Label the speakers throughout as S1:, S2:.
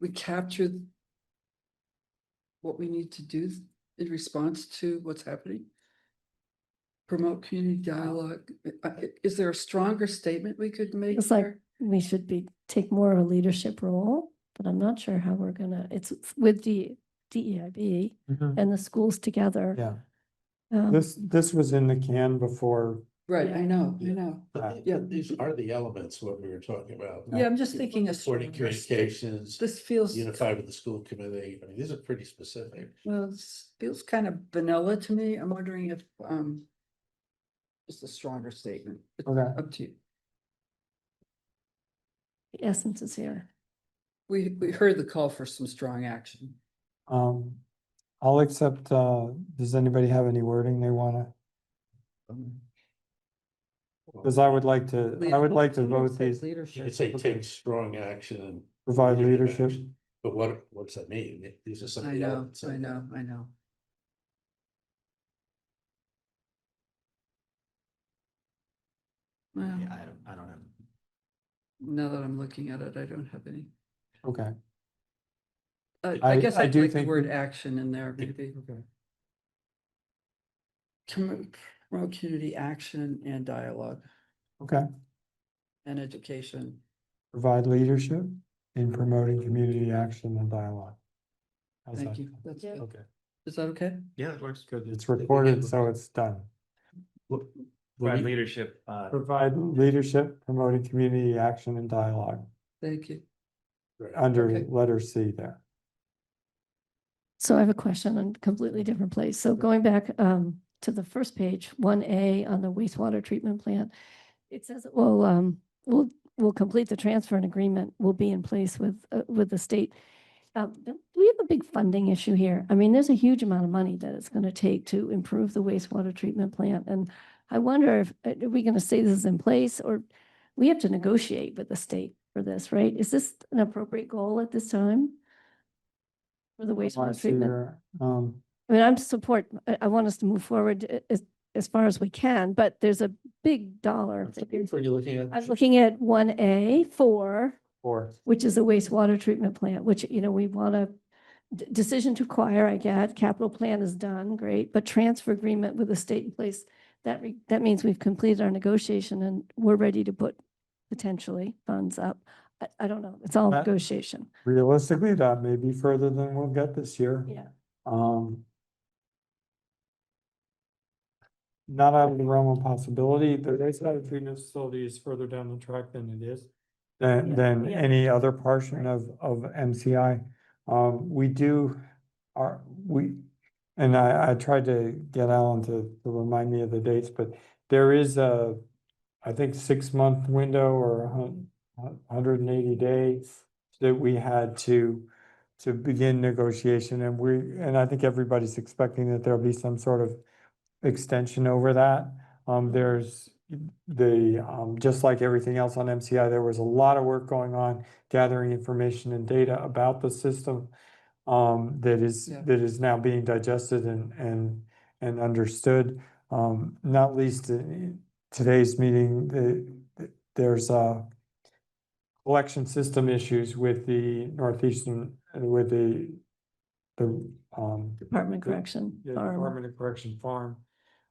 S1: we captured what we need to do in response to what's happening? Promote community dialogue. I- I- Is there a stronger statement we could make
S2: It's like-
S1: there?
S2: we should be, take more of a leadership role, but I'm not sure how we're gonna, it's with the DEIB
S3: Mhm.
S2: and the schools together.
S3: Yeah,
S2: um,
S3: this, this was in the can before.
S1: Right, I know, I know.
S3: uh,
S1: Yeah.
S4: These are the elements, what we were talking about.
S1: Yeah, I'm just thinking a
S4: Supporting
S1: stronger
S4: communications,
S1: This feels,
S4: unified with the school committee, I mean, these are pretty specific.
S1: well, this feels kind of vanilla to me. I'm wondering if, um, just a stronger statement. It's
S3: Okay.
S1: Up to you.
S2: the Essence is here.
S1: We, we heard the call for some strong action.
S3: Um, I'll accept, uh, does anybody have any wording they wanna? Cause I would like to, I would like to vote these,
S4: You
S1: Leadership.
S4: could say take strong action and.
S3: provide leadership.
S4: action. But what, what's that mean? These are some.
S1: I
S4: of the
S1: know,
S4: elements
S1: I
S4: of-
S1: know, I know. Well,
S4: Yeah, I don't, I don't know.
S1: now that I'm looking at it, I don't have any.
S3: Okay.
S1: Uh,
S3: I-
S1: I guess
S3: I
S1: I'd
S3: do
S1: like the
S3: think-
S1: word action in there, maybe. Commu- Promote community action and dialogue
S3: Okay,
S1: and education.
S3: provide leadership in promoting community action and dialogue. How's
S1: Thank
S3: that?
S1: you. That's
S2: Yeah.
S1: good.
S3: Okay,
S1: Is that okay?
S5: Yeah, it works. Good.
S3: it's recorded, so it's done.
S5: Provide leadership, uh,
S3: Provide leadership promoting community action and dialogue
S1: Thank you.
S3: under
S1: Okay.
S3: letter C there.
S2: So I have a question on a completely different place. So going back um to the first page, one A on the wastewater treatment plant. It says, well, um, we'll, we'll complete the transfer and agreement will be in place with, uh, with the state. Uh, but we have a big funding issue here. I mean, there's a huge amount of money that it's gonna take to improve the wastewater treatment plant. And I wonder if, uh, are we gonna say this is in place or we have to negotiate with the state for this, right? Is this an appropriate goal at this time? For the
S3: Wanna
S2: wastewater
S3: see
S2: treatment?
S3: your, Um,
S2: I mean, I'm support, I, I want us to move forward a- as, as far as we can, but there's a big dollar. figure.
S4: What are you looking at?
S2: I was looking at one A four,
S3: or
S2: which is a wastewater treatment plant, which, you know, we want to decision to acquire, I get, capital plan is done, great, but transfer agreement with the state in place, that, re- that means we've completed our negotiation and we're ready to put potentially funds up. I, I don't know, it's all
S3: That-
S2: negotiation.
S3: realistically, that may be further than we'll get this year.
S2: Yeah.
S3: Um. Not out of the realm of possibility, the wastewater treatment facility is further down the track than it is. Than,
S2: Yeah.
S3: than
S2: Yeah.
S3: any other portion of, of MCI. Um, we do, are, we, and I, I tried to get Alan to, to remind me of the dates, but there is a, I think, six-month window or a hun- a hundred and eighty days that we had to, to begin negotiation, and we, and I think everybody's expecting that there'll be some sort of extension over that. Um, there's the, um, just like everything else on MCI, there was a lot of work going on gathering information and data about the system um, that is,
S1: Yeah.
S3: that is now being digested and, and, and understood. Um, not least in today's meeting, the, the- there's a collection system issues with the Northeastern, with the, the, um,
S2: Department
S3: the-
S2: correction.
S3: yeah,
S2: farm.
S3: Department of Correction Farm,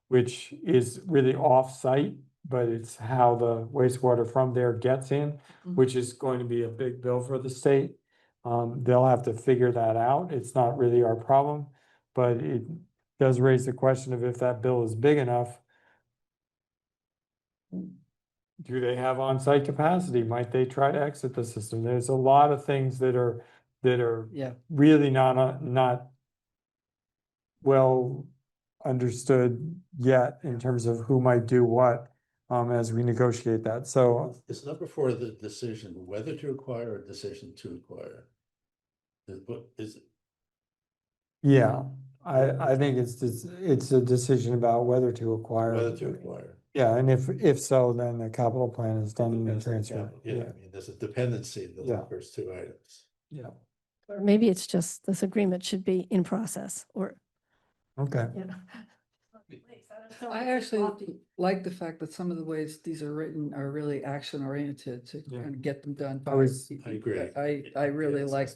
S3: which is really off-site, but it's how the wastewater from there gets in,
S1: Mhm.
S3: which is going to be a big bill for the state. Um, they'll have to figure that out. It's not really our problem, but it does raise the question of if that bill is big enough. Do they have on-site capacity? Might they try to exit the system? There's a lot of things that are, that are
S1: Yeah,
S3: really not, uh, not well understood yet in terms of who might do what, um, as we negotiate that. So
S4: It's number four, the decision whether to acquire or decision to acquire. Is- What is,
S3: Yeah, I, I think it's, dis- it's a decision about whether to acquire.
S4: whether to acquire.
S3: Yeah, and if, if so, then the capital plan is done in the
S4: Depends on
S3: transfer.
S4: capital. Yeah, I mean, there's a dependency in
S3: Yeah.
S4: the first two items.
S3: Yeah,
S2: Or maybe it's just this agreement should be in process or,
S3: okay.
S2: you
S1: I actually like the fact that some of the ways these are written are really action oriented to
S3: Yeah.
S1: kind of get them done.
S3: I
S1: by-
S3: was-
S4: I agree.
S1: I, I really
S4: Yes.
S1: like